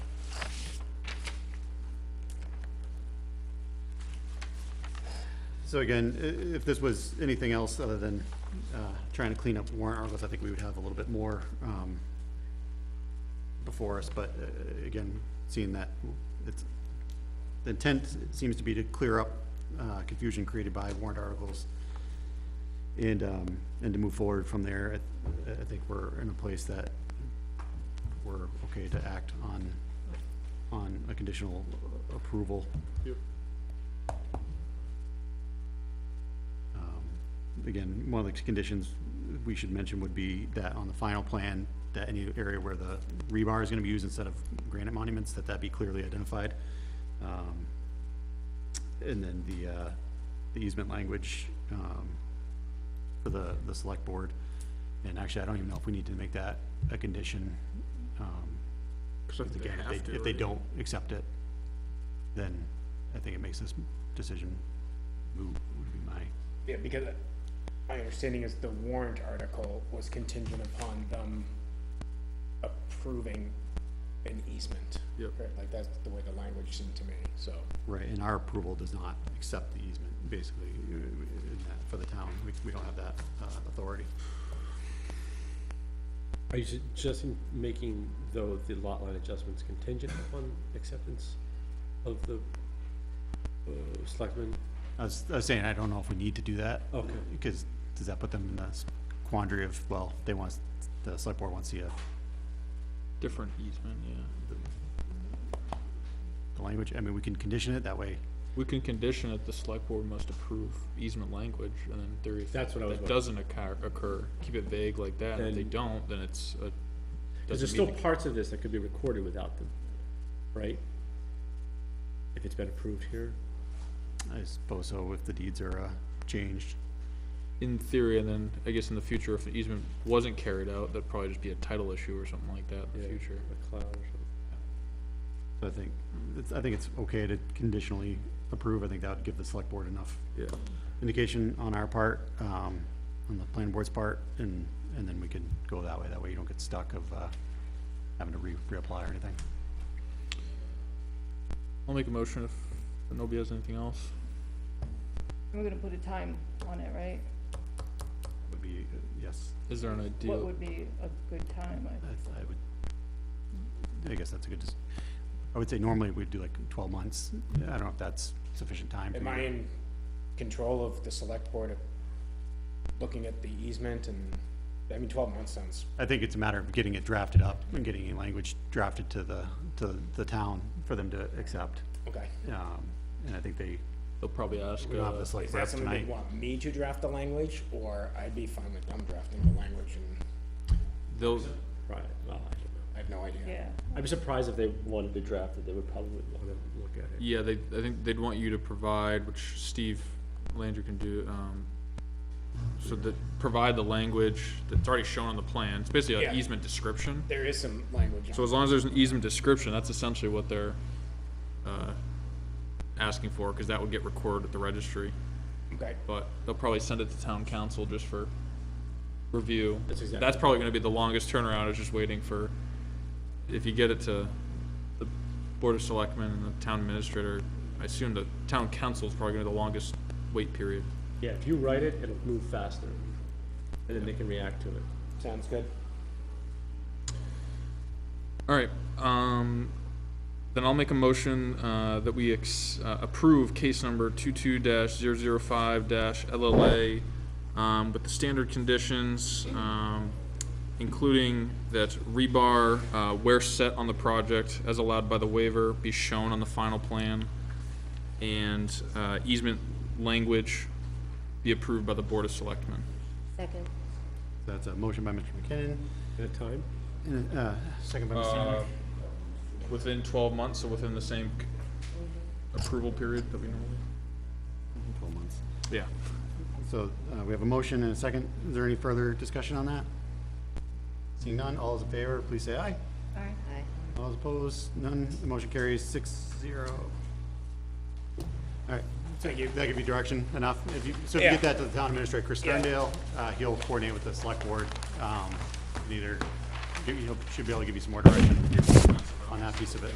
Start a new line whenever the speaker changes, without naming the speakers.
So again, i- if this was anything else other than, uh, trying to clean up warrant articles, I think we would have a little bit more, um, before us, but, uh, again, seeing that it's, the intent seems to be to clear up, uh, confusion created by warrant articles and, um, and to move forward from there, I, I think we're in a place that we're okay to act on, on a conditional approval.
Yep.
Um, Again, one of the conditions we should mention would be that on the final plan, that any area where the rebar is gonna be used instead of granite monuments, that that be clearly identified. Um, And then the, uh, the easement language, um, for the, the select board. And actually, I don't even know if we need to make that a condition. um,
Because I
Because
think they
again,
have
if
to.
they, if they
right?
don't accept it, then I think it makes this decision moot, would be my,
Yeah, because my understanding is the warrant article was contingent upon them approving an easement.
Yep.
Right, Like, that's the way the language seemed to me, so.
right, and our approval does not accept the easement, basically, uh, in that- for the town, we, we don't have that, uh, authority.
Are you suggesting making, though, the lot line adjustments contingent upon acceptance of the uh, selectmen?
I was, I was saying, I don't know if we need to do that. oh,
Okay.
Because, does that put them in the s- quandary of, well, they want, the select board wants the, uh,
Different easement, yeah.
the language, I mean, we can condition it, that way
We can condition it, the select board must approve easement language, and then there if.
That's what I was
That
wondering.
doesn't occur, occur, keep it vague like that, and if they
Then-
don't, then it's a.
Because there's
doesn't
still
meet the-
parts of this that could be recorded without them, right? If it's been approved here,
I suppose so, if the deeds are, uh, changed.
In theory, and then, I guess in the future, if the easement wasn't carried out, that'd probably just be a title issue or something like that in the
Yeah.
future.
a cloud or something.
So I think, it's, I think it's okay to conditionally approve, I think that would give the select board enough
Yeah.
indication on our part, um, on the planning board's part, and, and then we can go that way, that way you don't get stuck of, uh, having to re, reapply or anything.
I'll make a motion if nobody has anything else.
We're gonna put a time on it, right?
Would be, uh, yes,
Is there an
What
ideal,
would be a good time? I-
I, I would, I guess that's a good, dis- I would say normally we'd do like twelve months, I don't know if that's sufficient time. for
Am
you.
I in control of the select board of looking at the easement and, I mean, twelve months sounds,
I think it's a matter of getting it drafted up and getting a language drafted to the, to the town for them to accept.
okay.
Um, and I think they,
they'll probably ask,
we don't have
uh,
this like
Is that
draft
something
tonight.
you'd want me to draft the language, or I'd be fine with them drafting the language and
they'll,
Right, well, I don't know.
I have no idea?
Yeah,
I'm surprised if they wanted to draft it, they would probably want to look at it.
Yeah, they, I think they'd want you to provide, which Steve Landry can do, um, so that, provide the language that's already shown on the plan, it's basically an
Yeah.
easement description.
There is some language on
So as long as there's an easement description, that's essentially what they're, uh, asking for, cause that would get recorded at the registry.
Okay,
But they'll probably send it to town council just for review.
That's exactly-
That's probably gonna be the longest turnaround, is just waiting for, if you get it to the Board of Selectmen and the town administrator, I assume the town council is probably gonna be the longest wait period.
Yeah, if you write it, it'll move faster, and then they can react to it.
sounds good.
Alright, um, then I'll make a motion, uh, that we ex, uh, approve case number two-two dash zero-zero-five dash LLA, um, with the standard conditions, um, including that rebar, uh, where set on the project as allowed by the waiver be shown on the final plan, and, uh, easement language be approved by the Board of Selectmen.
Second.
That's a motion by Mr. McKinnon,
At a time?
and, uh, second by Mr. Miller.
Uh, Within twelve months, so within the same c- approval period that we normally?
Twelve months.
Yeah.
So, uh, we have a motion and a second. Is there any further discussion on that? Seeing none, all those in favor, please say aye.
Aye.
All those opposed, none. The motion carries six zero. All right. Thank you. That give you direction enough. If you, so if you
Yeah.
get that to the town administrator, Chris
Yeah.
Sterndale, uh, he'll coordinate with the select board. Um, and either, he should be able to give you some more direction on that piece of it.